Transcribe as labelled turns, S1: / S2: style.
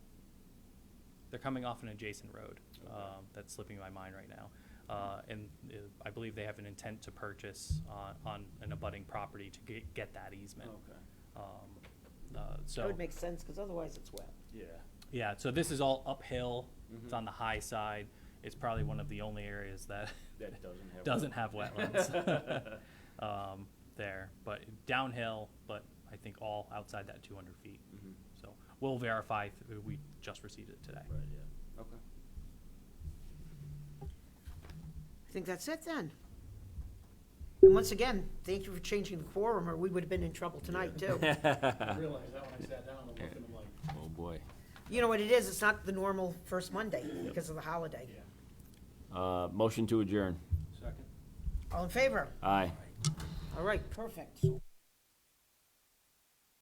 S1: They're coming off an adjacent road um, that's slipping my mind right now. Uh, And uh, I believe they have an intent to purchase on- on an abutting property to get- get that easement.
S2: Okay,
S1: Um, uh, So.
S3: That would make sense, because otherwise it's wet.
S2: yeah.
S1: Yeah, so this is all uphill. It's
S2: Mhm.
S1: on the high side. It's probably one of the only areas that
S2: That doesn't have.
S1: doesn't have wetlands um, there. But downhill, but I think all outside that 200 feet.
S2: Mhm.
S1: So we'll verify. If we just received it today.
S2: Right, yeah, okay.
S3: I think that's it then. And once again, thank you for changing the quorum, or we would have been in trouble tonight, too.
S4: I realized that when I sat down, I'm looking, I'm like,
S5: Oh, boy.
S3: You know what it is, it's not the normal first Monday because of the holiday.
S4: yeah.
S5: Uh, motion to adjourn.
S4: Second.
S3: All in favor?
S5: Aye.
S3: All right, perfect.